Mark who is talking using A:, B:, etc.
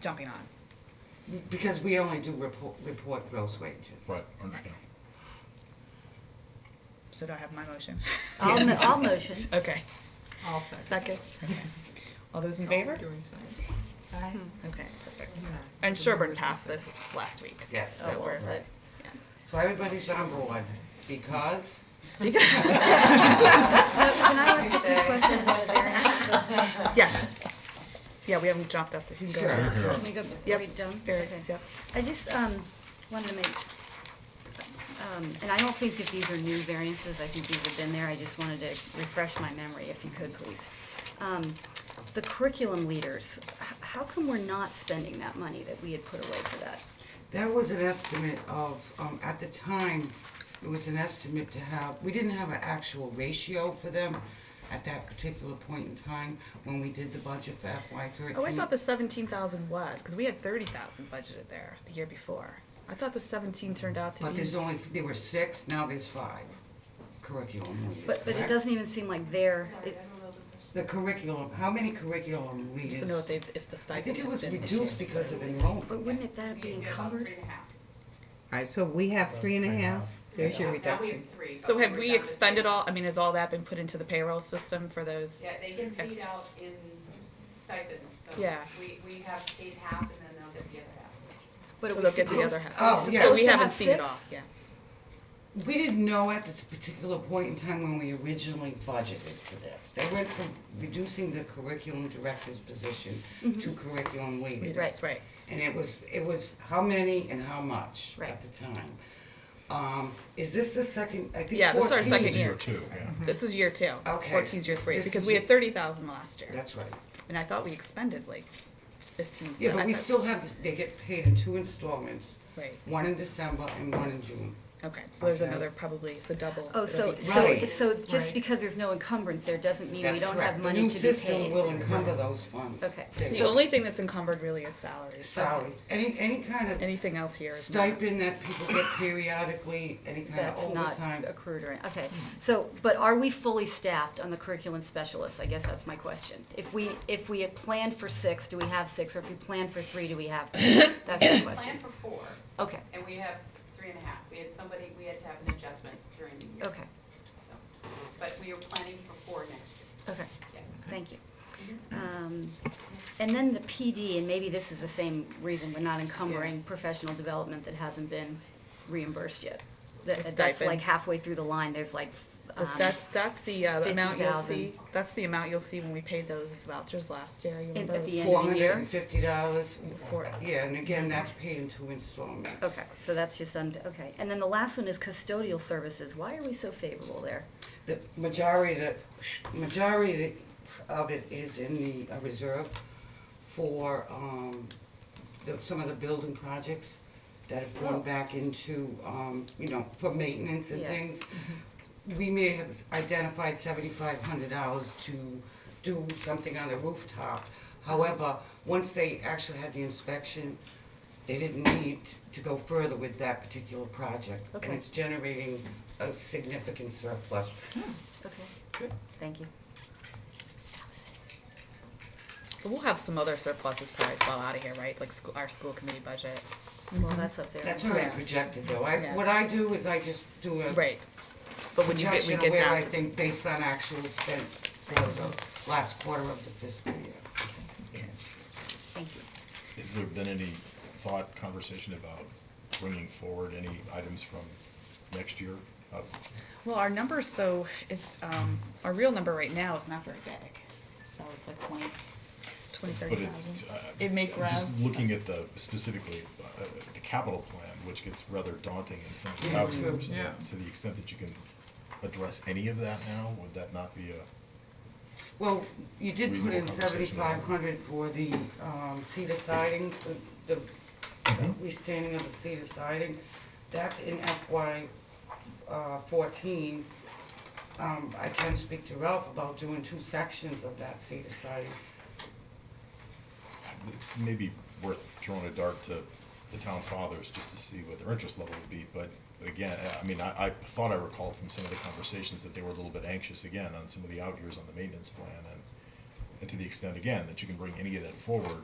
A: jumping on.
B: Because we only do report, report gross wages.
C: Right, understand.
A: So do I have my motion?
D: I'll, mo- I'll motion.
A: Okay,
E: I'll second.
D: Second.
A: okay. All those in favor? Hmm.
E: Doing second.
D: Aye.
A: Okay, perfect. And Sherburne passed this last week.
B: Yes.
A: So
D: Oh,
A: we're-
D: right.
B: So everybody's on board, because
D: Can I ask a few questions on the variances?
A: Yes. Yeah, we haven't dropped off the, you can go.
B: Sure.
A: now.
D: Let me go, are
A: Yep.
D: we done? Okay.
A: Variances, yep.
D: I just um, wanted to make, um, and I don't think that these are new variances, I think these have been there, I just wanted to refresh my memory, if you could, please. Um, The curriculum leaders, h- how come we're not spending that money that we had put away for that?
B: that was an estimate of, um, at the time, it was an estimate to have, we didn't have an actual ratio for them at that particular point in time when we did the budget for FY thirteen.
A: Oh, I thought the seventeen thousand was, because we had thirty thousand budgeted there the year before. I thought the seventeen turned out to
B: But
A: be,
B: there's only, there were six, now there's five curriculum leaders,
D: But, but it
B: correct?
D: doesn't even seem like they're, it-
B: The curriculum, how many curriculum
A: just
B: leaders?
A: to know if they, if the
B: I
A: stipend
B: think it
A: has
B: was
A: been this
B: reduced
A: year.
B: because of
D: but
B: enrollment.
D: wouldn't it that be encumbered?
F: All right, so we have three and a half, there's your
E: Now we have
F: reduction.
E: three.
A: So
E: okay,
A: have
E: we're
A: we
E: down to
A: expended
E: two.
A: all, I mean, has all that been put into the payroll system for those?
E: Yeah, they get paid
A: Ex-
E: out in stipends, so
A: Yeah.
E: we, we have paid half and then they'll get the other half.
D: But
A: So
D: are we
A: they'll get the
D: supposed-
A: other half.
B: Oh,
D: are we
B: yeah.
A: So
D: supposed
A: we
D: to
A: haven't
D: have
A: seen it all,
D: six?
A: yeah.
B: We didn't know at this particular point in time when we originally budgeted for this. They went from reducing the curriculum director's position to curriculum leaders.
A: Mm-hmm. Right, right.
B: And it was, it was how many and how much
D: Right.
B: at the time. Um, is this the second, I think
A: Yeah, this is our
B: 14
A: second year.
C: Year two, yeah.
A: This is year two.
B: Hmm. Okay.
A: Fourteen's year three,
B: This
A: because
B: is
A: we
B: your-
A: had thirty thousand last year,
B: That's right.
A: and I thought we expended like fifteen.
B: Yeah,
A: so
B: but
A: I
B: we
A: thought-
B: still have, they get paid in two installments,
A: Right,
B: one in December and one in June.
A: okay, so there's
B: Okay.
A: another probably, so double.
D: Oh, so,
A: It'll be-
D: so,
B: Right.
D: so just
A: Right.
D: because there's no encumbrance there doesn't mean we
B: That's
D: don't have
B: correct. The
D: money
B: new
D: to be
B: system will
D: paid.
B: encumber those funds.
D: Okay.
B: They
A: The
B: will.
A: only thing that's encumbered really is salaries.
B: Salary, any, any kind of
A: Anything else here is not.
B: stipend that people get periodically, any kind of
D: That's not
B: overtime.
D: accrued or, okay.
B: Hmm.
D: So, but are we fully staffed on the curriculum specialists? I guess that's my question. If we, if we had planned for six, do we have six? Or if we planned for three, do we have? three? That's my
E: We planned
D: question.
E: for four
D: Okay,
E: and we have three and a half. We had somebody, we had to have an adjustment during the year.
D: okay,
E: So, but we are planning for four next year,
D: okay.
E: yes.
D: Thank you.
A: Mm-hmm.
D: Um, And then the PD, and maybe this is the same reason we're not encumbering professional development that hasn't been reimbursed yet. That- That's like
A: stipends.
D: halfway through the line, there's like, um,
A: But that's, that's the uh, amount you'll
D: 50,000.
A: see, that's the amount you'll see when we paid those vouchers last year, you
D: In- at
A: remember?
D: the end.
B: Four
D: of the year?
B: hundred and fifty dollars,
A: Four-
B: yeah, and again, that's paid in two installments.
D: okay, so that's just, un- okay. And then the last one is custodial services. Why are we so favorable there?
B: The majority, of the- majority of it is in the uh, reserve for, um, the, some of the building projects that have
D: Oh.
B: gone back into, um, you know, for maintenance and
D: Yeah.
B: things. We may have identified seventy-five hundred dollars to do something on the rooftop. However, once they actually had the inspection, they didn't need to go further with that particular project.
D: Okay.
B: And it's generating a significant surplus.
A: Hmm,
D: Okay, thank you.
A: But We'll have some other surpluses probably fall out of here, right, like scho- our school committee budget. Mm-hmm.
D: Well, that's up there.
B: That's already
A: Yeah.
B: projected though.
A: Yeah.
B: I, what I do is I just do a
A: Right, but when you get, we
B: projection of
A: get
B: where
A: down
B: I
A: to,
B: think based on actual spent for the last quarter of the fiscal year.
D: Thank you.
C: Has there been any thought, conversation about bringing forward any items from next year? Uh,
A: well, our number, so it's, um, our real number right now is not very big, so it's like twenty, twenty, thirty
C: But it's,
A: thousand.
C: uh,
A: It may
C: I'm just
A: grow.
C: looking at the, specifically, uh, the capital plan, which gets rather daunting in some
B: Yeah,
C: of the
B: true.
C: outcomes.
E: Yeah.
C: To the extent that you can address any of that now, would that not be a?
B: Well, you did put
C: Reasonable
B: in
C: conversation.
B: seventy-five hundred for the, um, cedar siding, the, the
C: Mm-hmm.
B: restanding of the cedar siding. That's in FY, uh, fourteen. Um, I can speak to Ralph about doing two sections of that cedar siding.
C: Um, it's maybe worth throwing a dart to the town fathers just to see what their interest level would be, but again, I- I mean, I, I thought I recalled from some of the conversations that they were a little bit anxious again on some of the out years on the maintenance plan, and, and to the extent, again, that you can bring any of that forward,